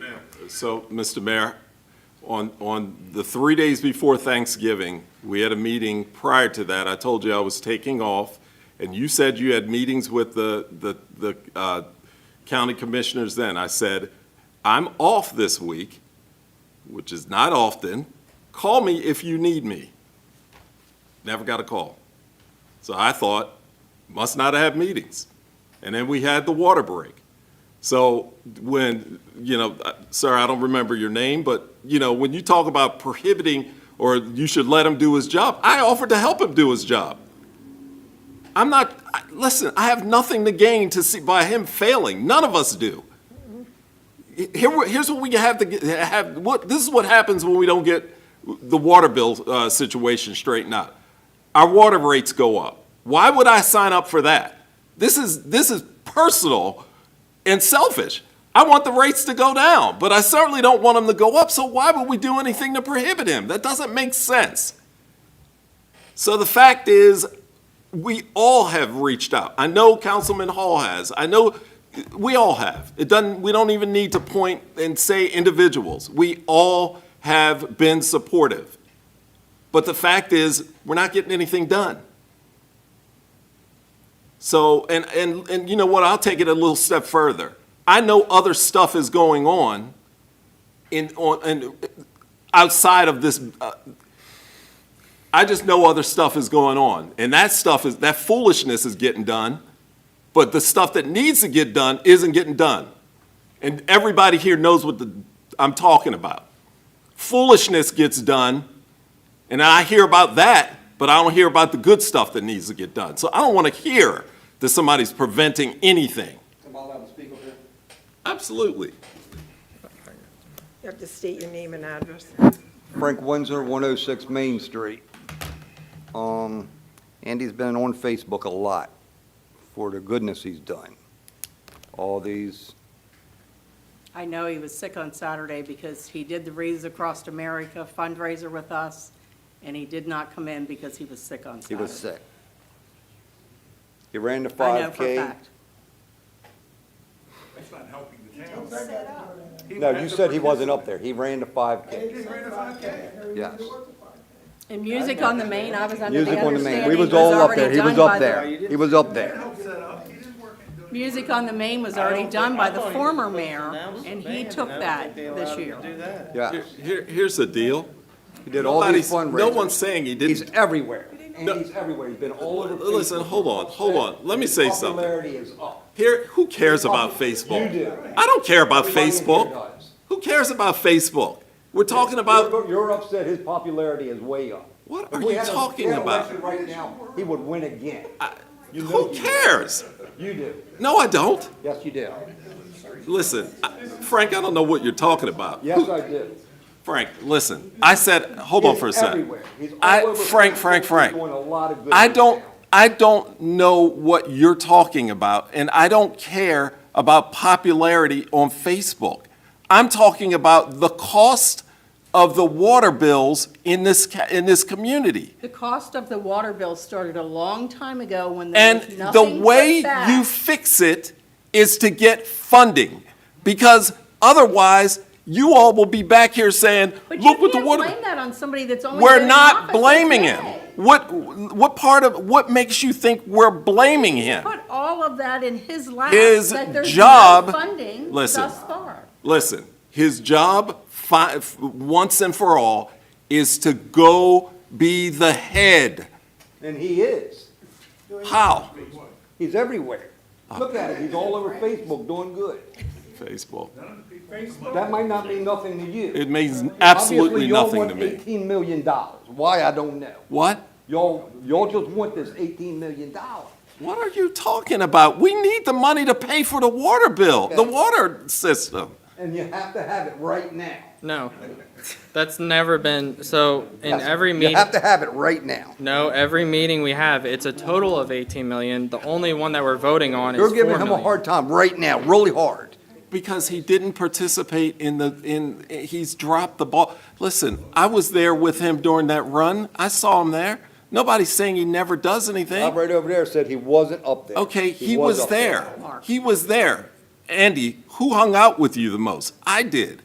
So, Mr. Mayor, on, on the three days before Thanksgiving, we had a meeting prior to that. I told you I was taking off, and you said you had meetings with the, the, the uh, county commissioners then. I said, I'm off this week, which is not often. Call me if you need me. Never got a call. So I thought, must not have meetings. And then we had the water break. So when, you know, uh, sir, I don't remember your name, but, you know, when you talk about prohibiting or you should let him do his job, I offered to help him do his job. I'm not, I- listen, I have nothing to gain to see by him failing. None of us do. Here, we- here's what we have to get, have, what, this is what happens when we don't get the water bill, uh, situation straightened out. Our water rates go up. Why would I sign up for that? This is, this is personal and selfish. I want the rates to go down, but I certainly don't want them to go up, so why would we do anything to prohibit him? That doesn't make sense. So the fact is, we all have reached out. I know Councilman Hall has. I know we all have. It doesn't, we don't even need to point and say individuals. We all have been supportive. But the fact is, we're not getting anything done. So, and, and, and you know what, I'll take it a little step further. I know other stuff is going on in, on, and outside of this, uh, I just know other stuff is going on. And that stuff is, that foolishness is getting done, but the stuff that needs to get done isn't getting done. And everybody here knows what the, I'm talking about. Foolishness gets done, and I hear about that, but I don't hear about the good stuff that needs to get done. So I don't want to hear that somebody's preventing anything. Am I allowed to speak over here? Absolutely. You have to state your name and address. Frank Windsor, 106 Main Street. Um, Andy's been on Facebook a lot for the goodness he's done. All these, I know he was sick on Saturday because he did the Reeds Across America fundraiser with us, and he did not come in because he was sick on he Saturday. was sick. He ran the I know for a 5K. fact. That's not helping the town. He No, has you to said he wasn't up there. He ran the 5K. participate. He ran a 5K. Yes. And Music on the Main, I was under the Music on the main. understanding We was was all up already there. He done was by up the. there. He was up there. Help set up, he didn't work it. Music on the Main was already done by the former mayor, and he took that this year. Yeah. Here, here's the deal. He did all these Nobody's- No one's fundraisers. saying he He's didn't. everywhere. Andy's everywhere. He's been all over Facebook. Listen, hold on, hold on. Let me His say something. Popularity is up. Here, who cares about Facebook? You do. I don't care about Everybody in here Facebook. does. Who cares about Facebook? We're talking about, You're- You're upset his popularity is way up. What If are we you had a- talking we had an about? election Right now, he would win again. You know who you- cares? You do. No, I don't. Yes, you do. Listen, I- Frank, I don't know what you're talking about. Yes, I do. Frank, listen, I said, hold on for a He's second. everywhere. He's all I, over Frank, Frank, Facebook. Frank. He's doing a lot of good I right don't, now. I don't know what you're talking about, and I don't care about popularity on Facebook. I'm talking about the cost of the water bills in this, ca- in this community. The cost of the water bill started a long time ago when there And was the nothing way but you that. fix it is to get funding, because otherwise, you all will be back here saying, But you look what the can't water. blame that on somebody that's only been We're in not office a blaming him. day. What, what part of, what makes you think we're blaming him? put all of that in his lap. His that there's no job- Funding thus listen. far. Listen, his job, fi- once and for all, is to go be the head. And he is. How? He's everywhere. Oh. Look at him. He's all over Facebook doing good. Facebook. That might not mean nothing to you. It means absolutely Obviously, y'all nothing to want me. Eighteen million dollars. Why, I don't know. What? Y'all, y'all just want this eighteen million dollars. What are you talking about? We need the money to pay for the water bill, the water system. And you have to have it right now. No, that's never been, so in That's- every You meeting, have to have it right now. no, every meeting we have, it's a total of 18 million. The only one that we're voting on is You're 4 giving him a million. hard time right now, really hard. Because he didn't participate in the, in, he's dropped the ball. Listen, I was there with him during that run. I saw him there. Nobody's saying he never does anything. Bob right over there said he wasn't up there. Okay, he was up there. there. He was there. Andy, who hung out with you the most? I did.